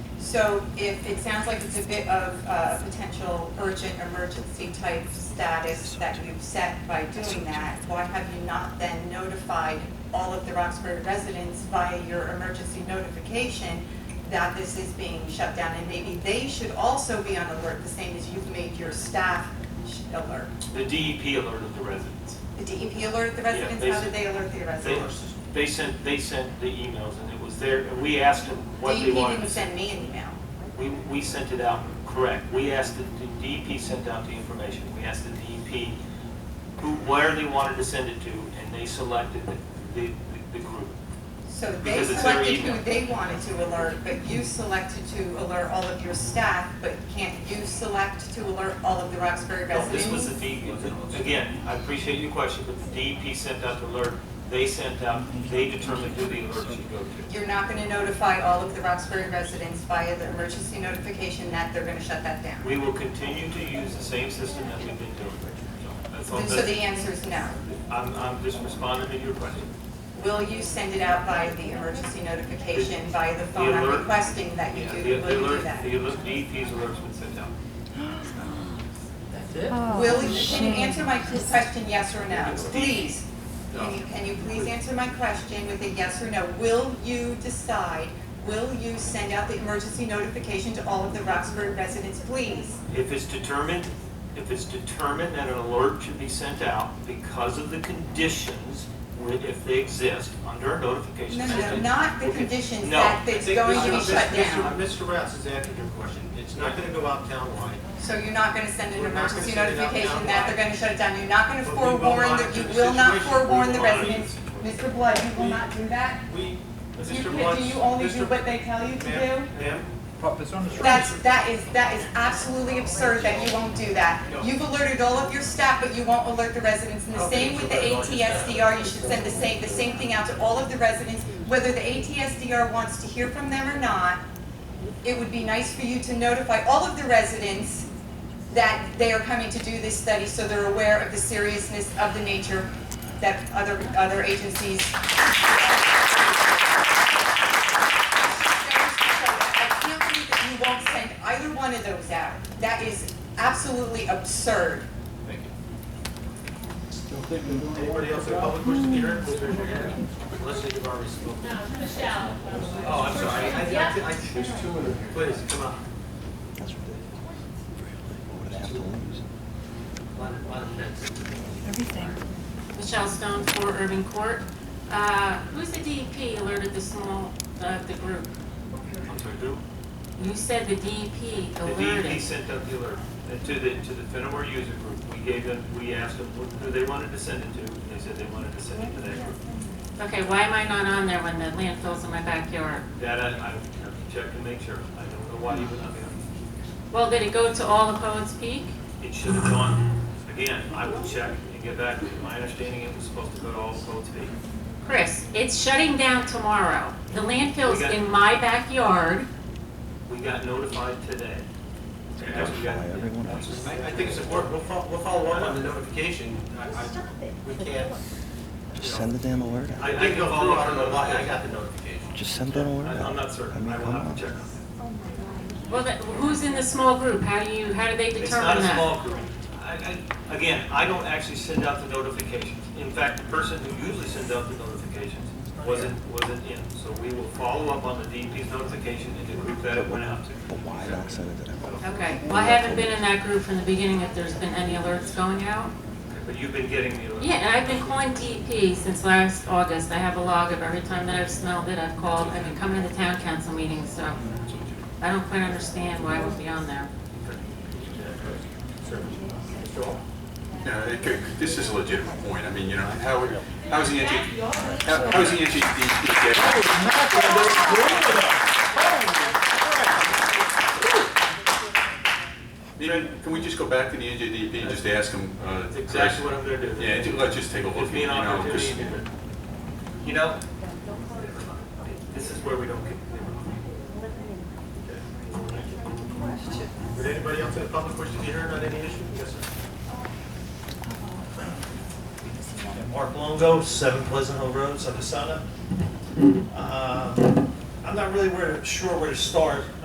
So if, it sounds like it's a bit of a potential urgent emergency type status that you've set by doing that, why have you not then notified all of the Roxbury residents via your emergency notification that this is being shut down? And maybe they should also be on alert, the same as you've made your staff sh- alert. The DEP alerted the residents. The DEP alerted the residents, they how did should- they alert the They, residents? they sent, they sent the emails, and it was there, and we asked them what DEP they wanted. didn't to see. send me an email. We, we sent it out, correct. We asked, the the DEP sent out the information. We asked the DEP who, where they wanted to send it to, and they selected the, the, the group. So they Because it's their selected who email. they wanted to alert, but you selected to alert all of your staff, but can't you select to alert all of the Roxbury No, This was the residents? DEP, again, I appreciate your question, but the DEP sent out the alert. They sent out, they determined who the alert should go to. You're not gonna notify all of the Roxbury residents via the emergency notification that they're gonna shut that down? We will continue to use the same system that we've been doing. So That's all, So the that's, answer is no. I'm, I'm just responding to your question. Will you send it out by the emergency notification, via the phone? I'm alert- requesting that you Yeah, do, the- the will you do alert- that? The E alert, DEP's alert's been sent out. That's it? Will, you- can you answer my question, yes or no, It's deep. please? Can you, can you please answer my question with a yes or no? Will you decide, will you send out the emergency notification to all of the Roxbury residents, please? If it's determined, if it's determined that an alert should be sent out because of the conditions, wi- if they exist, under a notification No, system. no, no, not the okay. conditions No. that I it's think going to be Mr. shut Mr. down. Mr. Rouse has answered your question. It's not going to go out townwide. So you're not gonna send an We're not gonna emergency send it out notification now. that they're gonna shut it down, you're not gonna But we will forewarn, the- monitor you the will not situation. forewarn We the will monitor residents. the Mr. Blood, you will not do that? We, You Mr. can, Blunt's. do you only do Mr. what they tell you to do? Ma'am, ma'am, That's, that is, that is absolutely absurd that you won't do that. No. You've alerted all of your staff, but you won't alert the residents, and the same with the ATSDR, you should send the same, the same thing out to all of the residents, whether the ATSDR wants to hear from them or not, it would be nice for you to notify all of the residents that they are coming to do this study, so they're aware of the seriousness of the nature that other, other agencies. I can't believe that you won't send either one of those out. That is absolutely absurd. thank you. Anybody else in public wish to hear it, please raise your hand. Unless you've already spoken. No, Michelle. Oh, I'm sorry. I- Yeah. I, I, there's two in here. Please, come on. That's ridiculous. What would I have to lose? Line- line of fence. Michelle Stone, for Urban Court. Uh, Who's the DEP alerted the small, the the group? I'm sorry, do- You said the DEP The E DEP alerted. sent out the alert uh, to the, to the Fenimore user group. We gave them, we asked them what- who they wanted to send it to, and they said they wanted to send it to that group. Okay, why am I not on there when the landfill's in my backyard? That I, I have to check and make sure. I don't know why you would not be on. Well, did it go to all of Poets Peak? It should have gone, again, I will check and get back to you. My understanding, it was supposed to go to all Cold Spring. Chris, it's shutting down tomorrow. The landfill's We got- in my backyard. We got notified today. Yeah, We got- Everyone else. I, I think it's important, we'll follow, we'll follow up on the notification. I, I, we can't, Just send the damn alert I, out. I I didn't can go follow through, I up don't on know why, I the, got the notification. Just send that alert I- out. I'm not certain. mean, I will come have on. to check. Well, that- who's in the small group? How do you, how do they determine It's not that? a small group. I, I, again, I don't actually send out the notifications. In fact, the person who usually sends out the notifications wasn't, wasn't in. So we will follow up on the DEP's notification and the group that it went out to. But why not send it to everyone? Okay, well, I haven't been in that group from the beginning if there's been any alerts going out. But you've been getting the alert. Yeah, and I've been calling DEP since last August. I have a log of every time that I've smelled it, I've called. I've been coming to the town council meetings, so I don't quite understand why it would be on there. Yeah, it could- this is a legitimate point. I mean, you know, how, how is the NG, how how is the NG, getting? Maybe, can we just go back to the NJDP and just ask them? uh, That's exactly what I'm gonna do. Yeah, ju- let's just take a look. Gives me an you know, opportunity just- to, you know, this is where we don't get. Would anybody else in the public wish to be heard on any issue? Yes, sir. Mark Longo, Seven Pleasant Hill Road, Uh, Sunnyside. Um I'm not really where, sure where to start.